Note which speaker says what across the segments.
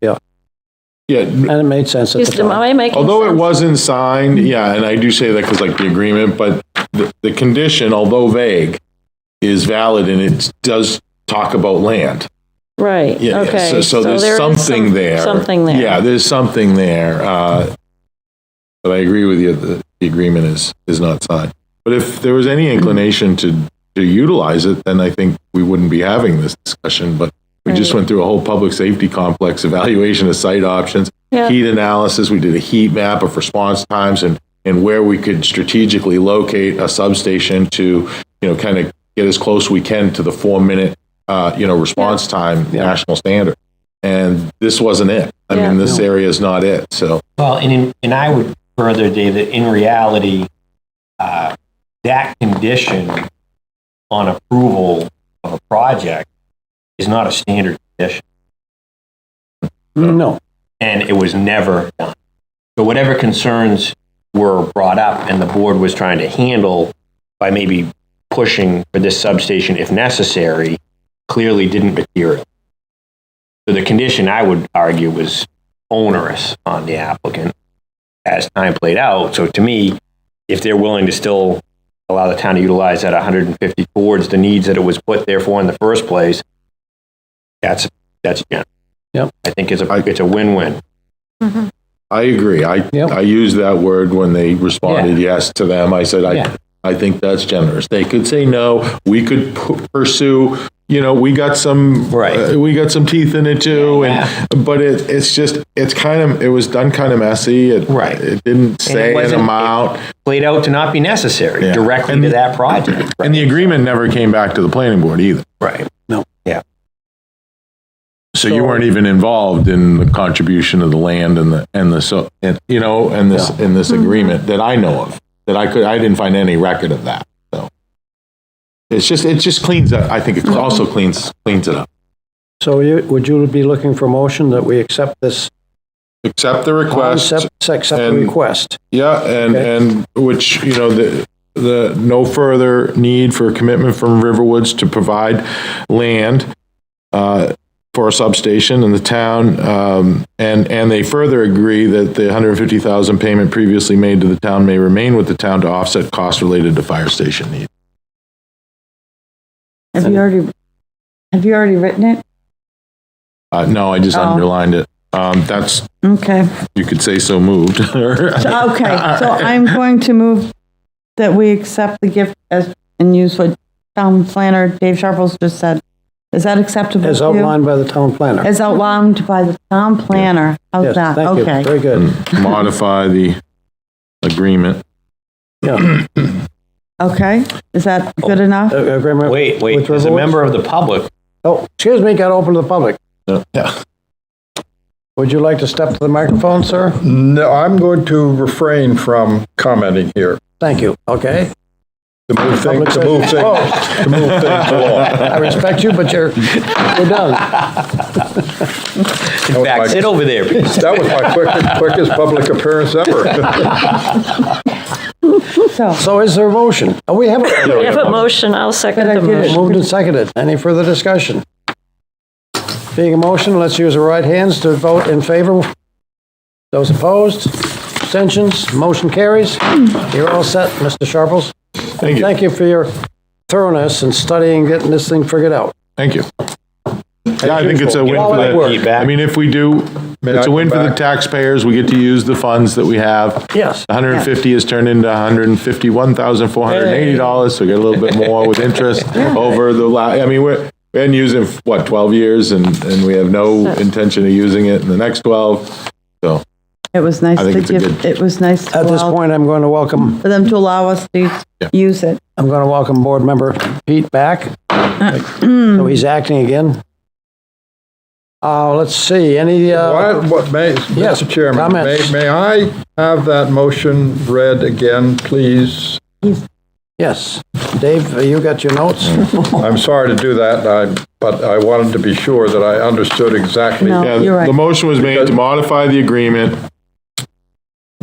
Speaker 1: Yeah,
Speaker 2: Yeah,
Speaker 1: and it made sense at the
Speaker 3: Is- Am
Speaker 1: time.
Speaker 3: I making sense?
Speaker 2: although it wasn't signed, yeah, and I do say that because like the agreement, but the, the condition, although vague, is valid and it does talk about land.
Speaker 3: Right,
Speaker 2: Yeah, yeah,
Speaker 3: okay.
Speaker 2: so- So
Speaker 3: there
Speaker 2: there's
Speaker 3: is some-
Speaker 2: something there.
Speaker 3: Something there.
Speaker 2: Yeah, there's something there. uh, But I agree with you, that the agreement is, is not signed. But if there was any inclination to, to utilize it, then I think we wouldn't be having this discussion. But we just
Speaker 3: Right.
Speaker 2: went through a whole public safety complex evaluation of site options,
Speaker 3: Yeah.
Speaker 2: heat analysis, we did a heat map of response times and, and where we could strategically locate a substation to, you know, kind of get as close we can to the four-minute, uh, you know, response time national standard. And this wasn't it. I
Speaker 3: Yeah.
Speaker 2: mean, this area is not it, so.
Speaker 4: Well, and, in- and I would further, Dave, that in reality, uh, that condition on approval of a project is not a standard condition,
Speaker 1: No,
Speaker 4: and it was never done. So whatever concerns were brought up and the board was trying to handle by maybe pushing for this substation if necessary, clearly didn't material. So the condition, I would argue, was onerous on the applicant as time played out. So to me, if they're willing to still allow the town to utilize that 150 towards the needs that it was put there for in the first place, that's, that's, yeah.
Speaker 1: Yep.
Speaker 4: I think it's
Speaker 2: I-
Speaker 4: a, it's a win-win.
Speaker 2: I agree. I,
Speaker 1: Yep.
Speaker 2: I used that word when they responded yes to them. I said, I, I think that's generous. They could say no, we could p- pursue, you know, we got some,
Speaker 4: Right.
Speaker 2: uh, we got some teeth in it too.
Speaker 4: Yeah.
Speaker 2: And, but it, it's just, it's kind of, it was done kind of messy. It-
Speaker 4: Right.
Speaker 2: It didn't say an
Speaker 4: wasn't-
Speaker 2: amount.
Speaker 4: Played out to not be necessary
Speaker 2: Yeah.
Speaker 4: directly
Speaker 2: And
Speaker 4: to
Speaker 2: the-
Speaker 4: that project.
Speaker 2: And the agreement never came back to the planning board either.
Speaker 4: Right.
Speaker 2: So you weren't even involved in the contribution of the land and the, and the, so, and, you know, and this, in this agreement that I know of, that I could, I didn't find any record of that, so. It's just, it just cleans up, I think it also cleans, cleans it up.
Speaker 1: so you, would you be looking for a motion that we accept this
Speaker 2: Accept the request,
Speaker 1: concept, accept the
Speaker 2: and-
Speaker 1: request?
Speaker 2: yeah, and,
Speaker 1: Okay.
Speaker 2: and which, you know, the, the, no further need for commitment from Riverwoods to provide land uh, for a substation in the town, um, and, and they further agree that the 150,000 payment previously made to the town may remain with the town to offset costs related to fire station needs.
Speaker 5: Have you already, have you already written it?
Speaker 2: Uh, No, I just underlined it. Um, That's,
Speaker 5: Okay,
Speaker 2: you could say so moved.
Speaker 5: So-
Speaker 1: Uh,
Speaker 5: okay, so I'm going to move that we accept the gift as, and use what town planner Dave Sharples just said. Is that acceptable to you?
Speaker 1: As outlined by the town planner.
Speaker 5: As outlined by the town planner, how's
Speaker 1: Yes,
Speaker 5: that?
Speaker 1: thank you.
Speaker 5: Okay,
Speaker 1: Very
Speaker 2: Hmm.
Speaker 1: good.
Speaker 2: Modify the agreement.
Speaker 1: Yeah.
Speaker 5: okay, is that good
Speaker 1: Oh,
Speaker 5: enough?
Speaker 1: A- Agreement.
Speaker 4: Wait,
Speaker 1: with
Speaker 4: wait, as a
Speaker 1: Riverwoods?
Speaker 4: member of the public,
Speaker 1: Oh, excuse me, got open to the public.
Speaker 2: Yeah.
Speaker 1: Would you like to step to the microphone, sir?
Speaker 6: No, I'm going to refrain from commenting here.
Speaker 1: Thank you, okay?
Speaker 6: To move
Speaker 1: Public
Speaker 6: things, to move
Speaker 1: session.
Speaker 6: things, to move things along.
Speaker 1: I respect you, but you're, you're done.
Speaker 4: in fact,
Speaker 6: like-
Speaker 4: sit over there. because
Speaker 6: That was my quickest, quickest public appearance ever.
Speaker 5: So,
Speaker 1: So is there a motion? Oh, we have a
Speaker 3: We have a motion, I'll second
Speaker 5: But I
Speaker 3: the
Speaker 5: get it.
Speaker 3: motion.
Speaker 1: Moved and seconded. Any further discussion? Being a motion, let's use the right hands to vote in favor. Those opposed, abstentions, motion carries. You're all set, Mr. Sharples.
Speaker 2: Thank you.
Speaker 1: Thank you for your thoroughness in studying, getting this thing figured out.
Speaker 2: Thank you. Yeah, I think it's a win
Speaker 1: All
Speaker 2: for
Speaker 1: that
Speaker 2: the,
Speaker 1: work.
Speaker 2: I mean, if we do,
Speaker 6: May
Speaker 2: it's
Speaker 6: I
Speaker 2: a win
Speaker 6: come
Speaker 2: for the
Speaker 6: back?
Speaker 2: taxpayers, we get to use the funds that we have.
Speaker 1: Yes.
Speaker 2: 150 is turned into 151,480 dollars, so we get a little bit more with interest over the la, I mean, we're, we hadn't used it, for, what, 12 years, and, and we have no intention of using it in the next 12, so.
Speaker 5: it was nice
Speaker 2: I think
Speaker 5: to
Speaker 2: it's a
Speaker 5: give,
Speaker 2: good-
Speaker 5: it was nice to
Speaker 1: At this
Speaker 5: allow-
Speaker 1: point, I'm going to welcome,
Speaker 5: for them to allow us to use it.
Speaker 1: I'm going to welcome Board Member Pete back. So he's acting again. Uh, let's see, any, uh,
Speaker 6: What, what may,
Speaker 1: Yes,
Speaker 6: Mr. Chairman, may,
Speaker 1: comments.
Speaker 6: may I have that motion read again, please?
Speaker 1: yes. Dave, you got your notes?
Speaker 6: I'm sorry to do that, I, but I wanted to be sure that I understood exactly.
Speaker 5: No.
Speaker 2: Yeah,
Speaker 5: You're right.
Speaker 2: the motion was made to modify the agreement.
Speaker 6: Wait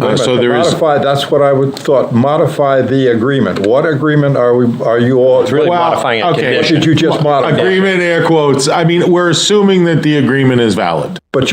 Speaker 2: Uh,
Speaker 6: a
Speaker 2: So
Speaker 6: minute,
Speaker 2: there is.
Speaker 6: Modify, that's what I would thought, modify the agreement. What agreement are we, are you all?
Speaker 4: It's really
Speaker 2: Well,
Speaker 4: modifying a
Speaker 2: okay.
Speaker 4: condition.
Speaker 6: What did you just modify?
Speaker 2: Agreement air quotes. I mean, we're assuming that the agreement is valid.